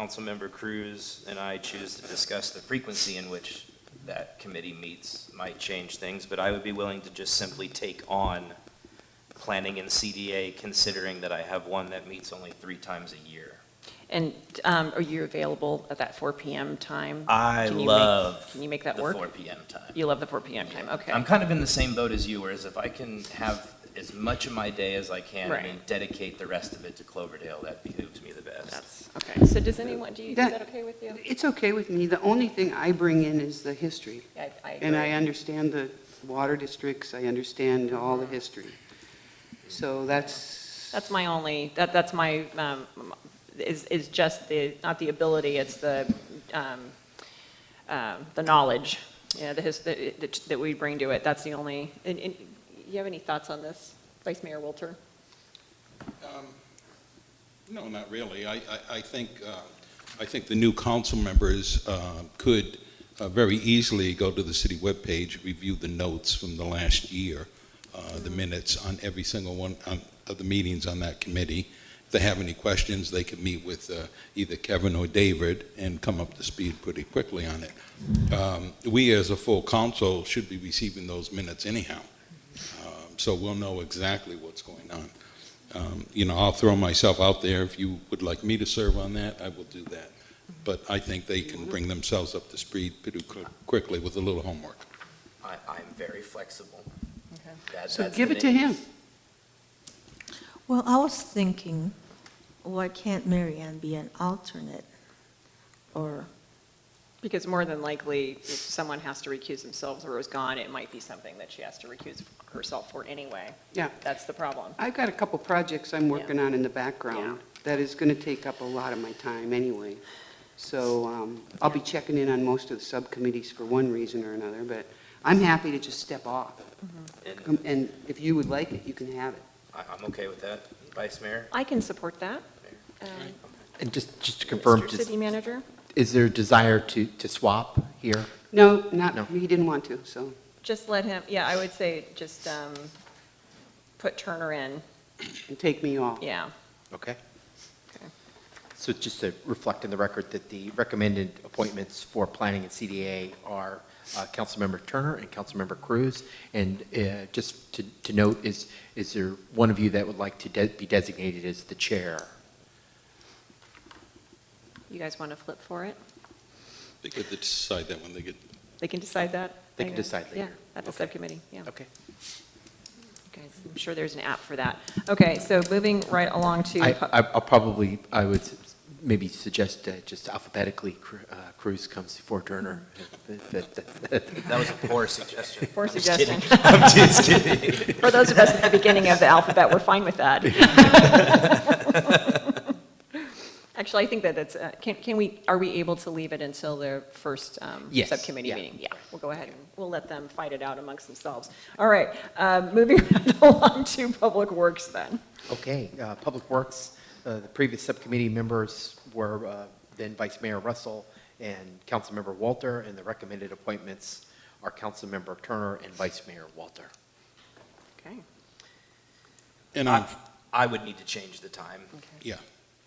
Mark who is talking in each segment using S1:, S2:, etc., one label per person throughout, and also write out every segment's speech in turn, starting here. S1: Councilmember Cruz and I choose to discuss the frequency in which that committee meets might change things, but I would be willing to just simply take on planning and CDA, considering that I have one that meets only three times a year.
S2: And um, are you available at that 4 PM time?
S1: I
S2: Can you make-
S1: love
S2: Can you make that
S1: Uh, the
S2: work?
S1: four PM time.
S2: You love the 4 PM time, okay.
S1: I'm kind of in the same boat as you, whereas if I can have as much of my day as I can
S2: Right.
S1: and dedicate the rest of it to Cloverdale, that behooves me the best.
S2: That's, okay. So does anyone, do you, is
S3: That-
S2: that okay with you?
S3: It's okay with me. The only thing I bring in is the history.
S2: I- I
S3: And I
S2: agree.
S3: understand the water districts, I understand all the history. So that's.
S2: That's my only, that, that's my, um, is, is just the, not the ability, it's the, um, um, the knowledge, yeah, the, his- the- that that we bring to it. That's the only, and, and you have any thoughts on this, Vice Mayor Wilter?
S4: Um, No, not really. I, I- I think, uh, I think the new council members uh, could uh, very easily go to the city webpage, review the notes from the last year, uh, the minutes on every single one on- of the meetings on that committee. If they have any questions, they can meet with uh, either Kevin or David and come up to speed pretty quickly on it. Um, We, as a full council, should be receiving those minutes anyhow, Um, so we'll know exactly what's going on. Um, You know, I'll throw myself out there. If you would like me to serve on that, I will do that. But I think they can bring themselves up to speed pretty qu- quickly with a little homework.
S1: I, I'm very flexible.
S2: Okay.
S1: That-
S3: So
S1: that's
S3: give
S1: the
S3: it to
S1: thing.
S3: him.
S5: Well, I was thinking, why can't Mary Ann be an alternate? Or,
S2: Because more than likely, if someone has to recuse themselves or is gone, it might be something that she has to recuse herself for anyway.
S3: Yeah.
S2: That's the problem.
S3: I've got a couple projects I'm working on in the background that is going to take up a lot of my time anyway. So um, I'll be checking in on most of the subcommittees for one reason or another, but I'm happy to just step off.
S1: And
S3: Um, And if you would like it, you can have it.
S1: I, I'm okay with that, Vice Mayor.
S2: I can support that. Um,
S6: And just, just to confirm,
S2: Mr.
S6: is-
S2: City Manager?
S6: is there a desire to, to swap here?
S3: No,
S6: No.
S3: not, he didn't want to, so.
S2: Just let him, yeah, I would say just um, put Turner in,
S3: and take me off.
S2: yeah.
S6: Okay.
S2: Okay.
S6: So just to reflect in the record that the recommended appointments for planning and CDA are uh, Councilmember Turner and Councilmember Cruz. And uh, just to, to note, is, is there one of you that would like to de- be designated as the chair?
S2: You guys want to flip for it?
S4: They could decide that when they get
S2: They can decide that?
S6: They can
S2: I-
S6: decide
S2: Yeah,
S6: later.
S2: at the
S6: Okay.
S2: subcommittee, yeah.
S6: Okay.
S2: Guys, I'm sure there's an app for that. Okay, so moving right along to.
S6: I, I- I'll probably, I would s- maybe suggest uh, just alphabetically Cru- uh, Cruz comes before Turner.
S2: Mm-hmm.
S6: That- that- that-
S1: That was a poor suggestion.
S2: Poor
S1: I'm just kidding.
S2: suggestion.
S1: I'm just kidding.
S2: For those of us at the beginning of the alphabet, we're fine with that. Actually, I think that that's, uh, can, can we, are we able to leave it until the first um,
S6: Yes,
S2: subcommittee
S6: yeah.
S2: meeting? Yeah, we'll go ahead and, we'll let them fight it out amongst themselves. All right, um, moving right along to Public Works then.
S6: Okay, uh, Public Works, uh, the previous subcommittee members were uh, then Vice Mayor Russell and Councilmember Walter, and the recommended appointments are Councilmember Turner and Vice Mayor Walter.
S2: Okay,
S4: And I'm,
S1: I, I would need to change the time.
S2: okay.
S4: yeah,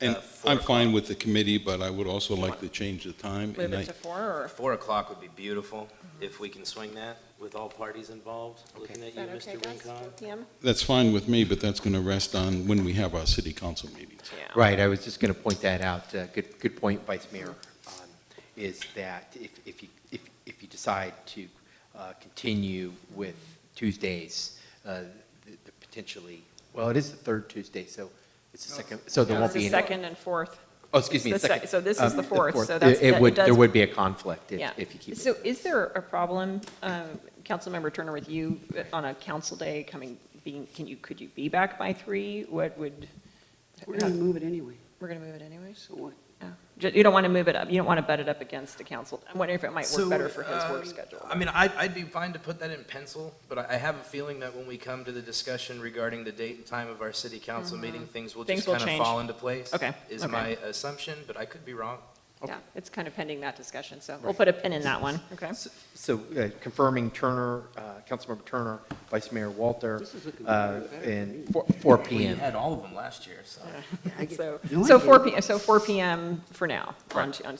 S4: and
S1: Uh, four
S4: I'm fine with the committee, but I would also like to change the time.
S2: Move
S4: and I-
S2: it to four or,
S1: Four o'clock would be beautiful, if we can swing that with all parties involved. Looking at
S2: is
S1: you,
S2: that okay,
S1: Mr.
S2: guys?
S1: Rincon.
S2: PM?
S4: That's fine with me, but that's going to rest on when we have our city council meetings.
S2: Yeah.
S6: Right, I was just going to point that out. Uh, Good, good point, Vice Mayor, um, is that if, if you, if, if you decide to uh, continue with Tuesdays, uh, the the potentially, well, it is the third Tuesday, so it's the second, so there
S2: No,
S6: won't
S2: it's
S6: be
S2: the
S6: any.
S2: second and fourth.
S6: Oh, excuse me,
S2: It's the sec-
S6: second.
S2: so this is
S6: um,
S2: the fourth, so
S6: It-
S2: that's- that
S6: It would,
S2: does-
S6: there would be a conflict if,
S2: Yeah.
S6: if you keep
S2: So
S6: it.
S2: is there a problem, um, Councilmember Turner, with you uh, on a council day coming, being, can you, could you be back by three? What would,
S3: We're going to move it anyway,
S2: we're going to move it anyways?
S3: so what?
S2: You don't want to move it up, you don't want to butt it up against the council. I'm wondering if it might work better for his work
S1: um,
S2: schedule.
S1: I mean, I'd, I'd be fine to put that in pencil, but I, I have a feeling that when we come to the discussion regarding the date and time of our city council meeting, things will
S2: Mm-hmm. Things
S1: just
S2: will
S1: kind of
S2: change.
S1: fall into place.
S2: Okay,
S1: Is
S2: okay.
S1: my assumption, but I could be wrong.
S2: Yeah, it's kind of pending that discussion, so we'll put a pin in that one, okay?
S6: S- So uh, confirming Turner, uh, Councilmember Turner, Vice Mayor Walter,
S3: This is looking
S6: uh,
S3: better
S6: and four- four
S1: We
S6: PM.
S1: had all of them last year, so.
S3: I get-
S2: So,
S3: no, I
S2: so 4
S3: get it.
S2: p.m. so 4 PM for now, on, on